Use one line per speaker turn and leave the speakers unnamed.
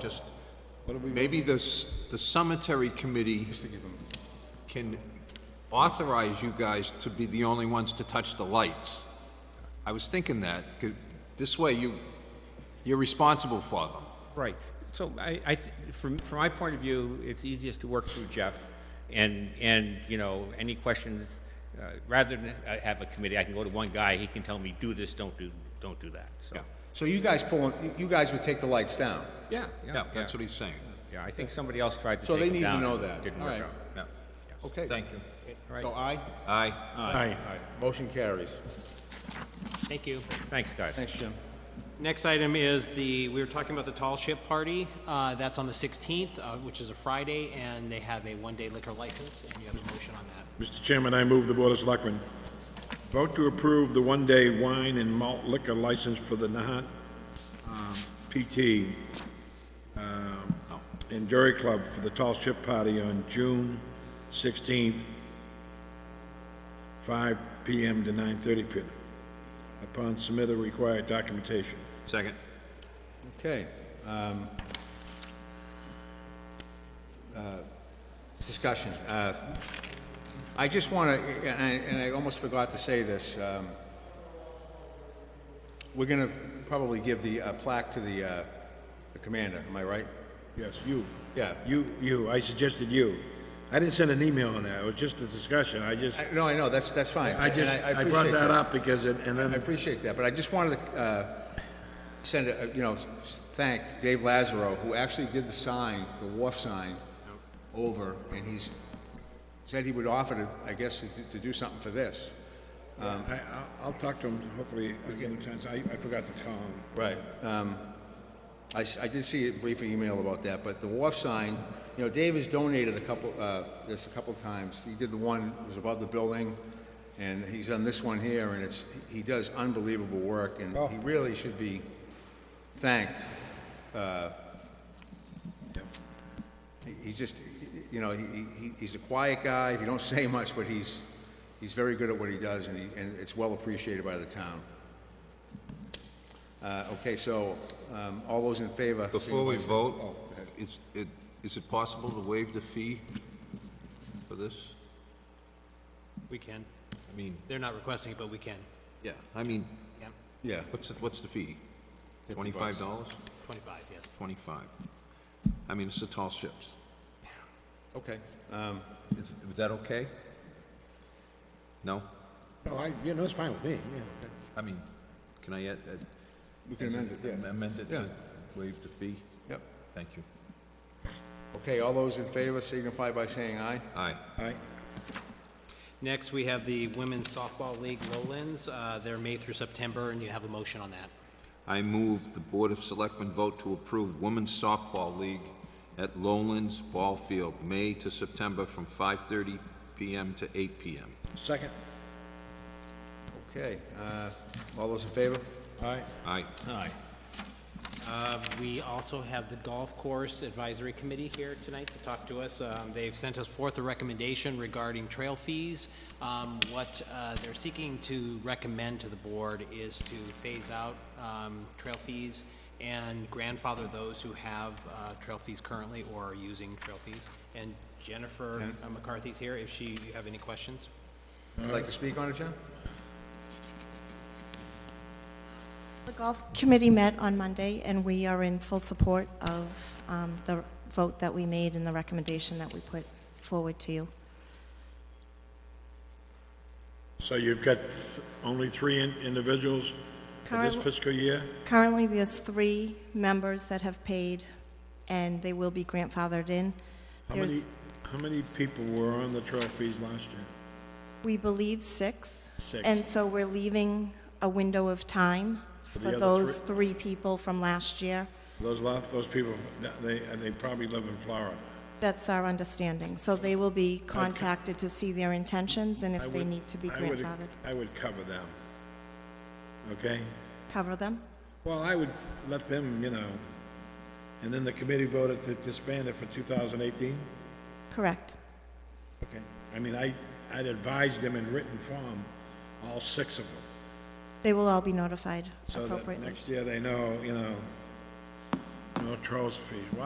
just, maybe the, s- the cemetery committee can authorize you guys to be the only ones to touch the lights. I was thinking that, 'cause this way you, you're responsible for them.
Right. So I, I, th- from, from my point of view, it's easiest to work through Jeff, and, and, you know, any questions, uh, rather than uh, have a committee, I can go to one guy, he can tell me, do this, don't do, don't do that, so.
So you guys pulling, you guys would take the lights down?
Yeah,
Yeah, that's what he's saying.
Yeah, I think somebody else tried to
So
take
they
him
need to
down
know
and
that.
Didn't
All
work
right.
out, yeah.
Okay.
Thank you.
So aye?
Aye.
Aye. Motion carries.
Thank you.
Thanks, guys.
Thanks, Jim.
Next item is the, we were talking about the Tall Ship Party. Uh, That's on the 16th, uh, which is a Friday, and they have a one-day liquor license, and you have a motion on that.
Mr. Chairman, I move the Board of Selectmen vote to approve the one-day wine and malt liquor license for the Nahat um, PT um, and Jury Club for the Tall Ship Party on June 16th, 5 PM to 9:30 PM, upon submit the required documentation.
Second.
Okay. um, uh, Discussion. Uh, I just want to, and I, and I almost forgot to say this, um, we're going to probably give the uh, plaque to the, uh, the commander, am I right?
Yes, you.
Yeah.
You, you, I suggested you. I didn't send an email on that, it was just a discussion, I just,
I- No, I know, that's, that's fine.
I just,
and
I brought
appreciate
that up because it, and
I
then
appreciate that, but I just wanted to uh, send, a you know, s- thank Dave Lazaro, who actually did the sign, the wharf sign, over, and he's, said he would offer to, I guess, to do- to do something for this.
I, I'll- I'll talk to him, hopefully, I'll get a chance, I, I forgot to call him.
Right. um, I s- I did see a brief email about that, but the wharf sign, you know, Dave has donated a couple, uh, this a couple times. He did the one, it was above the building, and he's done this one here, and it's, he does unbelievable work, and he really should be thanked. Uh, he- He's just, you know, he, he- he's a quiet guy, he don't say much, but he's, he's very good at what he does, and he, and it's well appreciated by the town. Uh, Okay, so, um, all those in favor?
Before we
signify-
vote, is, it, is it possible to waive the fee for this?
We can.
I mean,
They're not requesting it, but we can.
yeah, I mean,
Yeah,
Yeah,
what's, the- what's the fee? Twenty-five dollars?
25, yes.
Twenty-five. I mean, it's the tall ships.
okay. Um,
Is, is that okay? No?
No, Oh, I, you know, it's fine with me, yeah.
I mean, can I add? add-
We can amend it, yeah.
Amend it
Yeah.
to waive the fee?
Yep.
Thank you.
Okay, all those in favor signify by saying aye.
Aye.
I,
Next, we have the Women's Softball League Lowlands. Uh, They're May through September, and you have a motion on that.
I move the Board of Selectmen vote to approve Women's Softball League at Lowlands Ball Field, May to September, from 5:30 PM to 8 PM.
second,
Okay, uh, all those in favor?
I,
Aye.
Aye.
Um, We also have the Golf Course Advisory Committee here tonight to talk to us. Um, They've sent us forth a recommendation regarding trail fees. Um, What uh, they're seeking to recommend to the board is to phase out um, trail fees and grandfather those who have uh, trail fees currently or are using trail fees. And Jennifer uh, McCarthy's here, if she, you have any questions?
Would you like to speak on it, Jen?
The golf committee met on Monday, and we are in full support of um, the vote that we made and the recommendation that we put forward to you.
so you've got th- only three in- individuals for this
Current-
fiscal year?
Currently, there's three members that have paid, and they will be grandfathered in.
How many,
There's,
how many people were on the trail fees last year?
we believe, six.
Six.
And so we're leaving a window of time
the
for
other
those three people from last year.
Those lot, those people, that- they, they probably live in Florida.
That's our understanding. So they will be contacted to see their intentions and
I
if they
would-
need to be
I would-
grandfathered,
I would cover them, okay?
cover them.
Well, I would let them, you know, and then the committee voted to disband it for 2018?
Correct.
Okay. I mean, I, I'd advise them in written form, all six of them,
They will all be notified
so that
appropriately.
next year they know, you know, No trolls fees. Wow.